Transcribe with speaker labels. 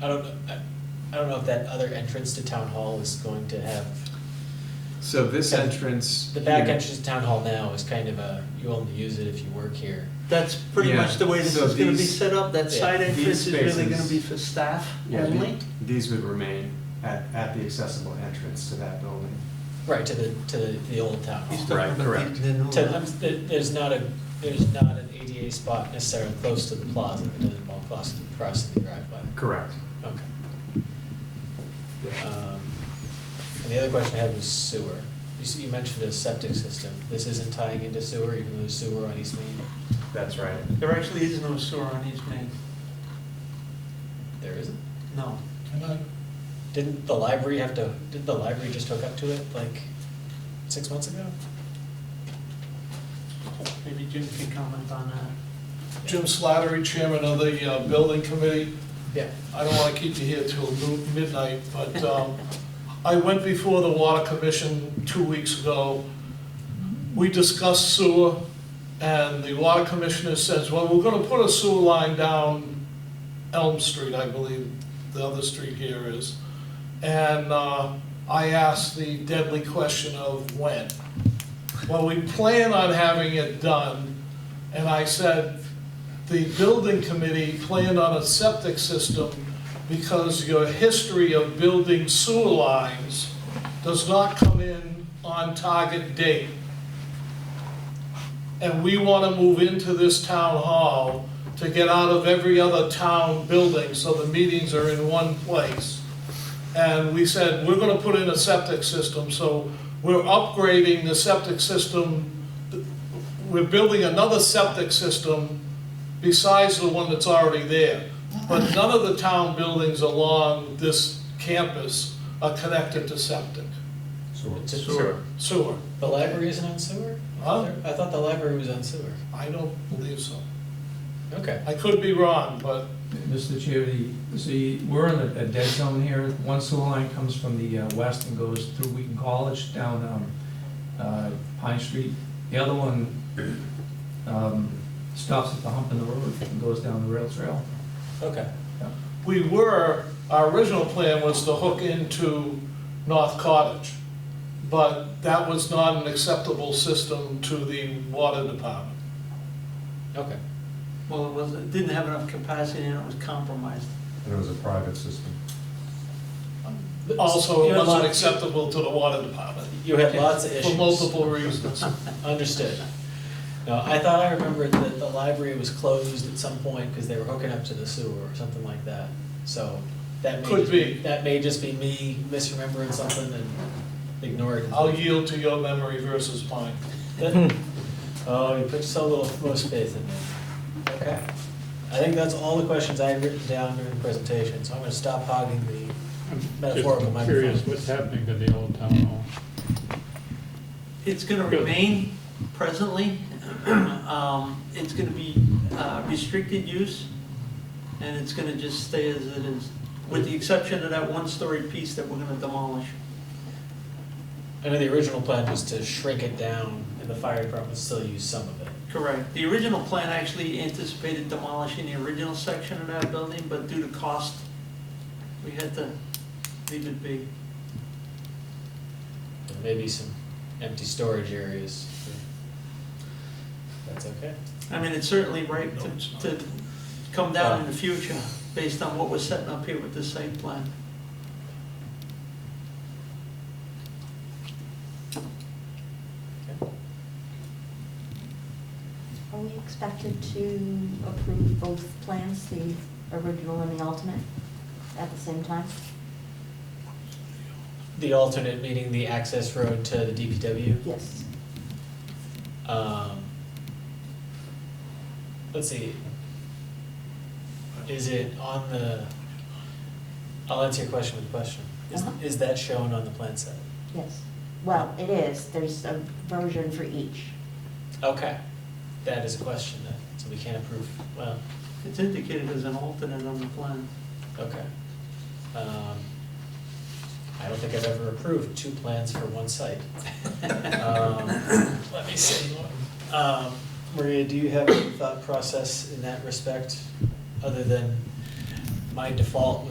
Speaker 1: I don't, know- I, I don't know if that other entrance to town hall is going to have,
Speaker 2: So this
Speaker 1: Yeah.
Speaker 2: entrance.
Speaker 1: the back
Speaker 2: here-
Speaker 1: entrance to town hall now is kind of a, you only use it if you work here.
Speaker 3: That's pretty
Speaker 2: Yeah,
Speaker 3: much the way this
Speaker 2: so
Speaker 3: is gonna be
Speaker 2: these-
Speaker 3: set up, that
Speaker 1: yeah,
Speaker 3: side entrance
Speaker 2: these
Speaker 3: is really gonna
Speaker 2: spaces-
Speaker 3: be for staff
Speaker 4: Yeah, the-
Speaker 3: only?
Speaker 4: These would remain at, at the accessible entrance to that building.
Speaker 1: Right, to the, to the, the old town
Speaker 3: He's
Speaker 1: hall.
Speaker 3: talking
Speaker 2: Right,
Speaker 3: about the-
Speaker 2: correct.
Speaker 3: the new
Speaker 1: To,
Speaker 3: one.
Speaker 1: I'm, there- there's not a, there's not an ADA spot necessarily close to the plaza, it doesn't involve crossing, crossing the driveway.
Speaker 4: Correct.
Speaker 1: Okay. Um, And the other question I had was sewer. You s you mentioned a septic system. This isn't tying into sewer, even though there's sewer on East Main?
Speaker 4: That's right.
Speaker 3: There actually is no sewer on East Main,
Speaker 1: There isn't?
Speaker 3: no.
Speaker 1: Didn't the library have to, did the library just hook up to it like six months ago?
Speaker 3: Maybe Jim can comment on that.
Speaker 5: Jim Slattery, chairman of the uh, building committee.
Speaker 1: Yeah.
Speaker 5: I don't want to keep you here till noo- midnight, but um, I went before the water commission two weeks ago. We discussed sewer, and the water commissioner says, well, we're going to put a sewer line down Elm Street, I believe the other street here is. And uh, I asked the deadly question of when. Well, we plan on having it done, and I said, the building committee planned on a septic system because your history of building sewer lines does not come in on target date. And we want to move into this town hall to get out of every other town building, so the meetings are in one place. And we said, we're going to put in a septic system, so we're upgrading the septic system we're building another septic system besides the one that's already there. But none of the town buildings along this campus are connected to septic,
Speaker 1: It's a-
Speaker 5: sewer.
Speaker 1: The library isn't on sewer?
Speaker 5: Huh?
Speaker 1: I thought the library was on sewer.
Speaker 5: I don't believe so.
Speaker 1: Okay.
Speaker 5: I could be wrong, but
Speaker 6: Mr. Chair, the, see, we're in a a dead zone here. One sewer line comes from the uh, west and goes through Wheaton College down um, uh, Pine Street. The other one um, stops at the hump in the road and goes down the rail trail.
Speaker 1: Okay.
Speaker 5: we were, our original plan was to hook into North Cottage. But that was not an acceptable system to the water department.
Speaker 1: Okay.
Speaker 3: Well, it was, it didn't have enough capacity and it was compromised.
Speaker 4: And it was a private system.
Speaker 5: Also,
Speaker 1: You
Speaker 5: it
Speaker 1: had
Speaker 5: wasn't
Speaker 1: lots-
Speaker 5: acceptable to the water department
Speaker 1: You had lots of issues.
Speaker 5: for multiple reasons.
Speaker 1: Understood. No, I thought I remembered that the library was closed at some point because they were hooking up to the sewer or something like that. So that may
Speaker 5: Could
Speaker 1: just
Speaker 5: be.
Speaker 1: That may just be me misremembering something and ignoring it.
Speaker 5: I'll yield to your memory versus mine.
Speaker 1: That- Hmm. Oh, you put so little most faith in it. Okay. I think that's all the questions I had written down during the presentation, so I'm gonna stop hogging the metaphorical
Speaker 7: Just curious
Speaker 1: microphone.
Speaker 7: what's happening to the old town hall.
Speaker 3: It's gonna
Speaker 7: Good.
Speaker 3: remain presently, um, it's gonna be uh, restricted use, and it's gonna just stay as it is, with the exception of that one-story piece that we're gonna demolish.
Speaker 1: I know the original plan was to shrink it down and the fire department still used some of it.
Speaker 3: Correct. The original plan actually anticipated demolishing the original section of that building, but due to cost, we had to leave it be.
Speaker 1: and maybe some empty storage areas. That's okay.
Speaker 3: I mean, it's certainly right to, to come down in the future, based on what we're setting up here with the site plan.
Speaker 8: Are we expected to approve both plans, the original and the alternate, at the same time?
Speaker 1: The alternate meaning the access road to the DPW.
Speaker 8: Yes.
Speaker 1: Um, let's see. Is it on the, I'll answer your question with a question. Is,
Speaker 8: Uh-huh.
Speaker 1: is that shown on the plan set?
Speaker 8: Yes. Well, it is, there's a version for each.
Speaker 1: Okay, that is a question then, so we can't approve, well,
Speaker 3: It's indicated as an alternate on the plan.
Speaker 1: okay. Um, I don't think I've ever approved two plans for one site. Um, Let me see. Um, Maria, do you have a thought process in that respect, other than my default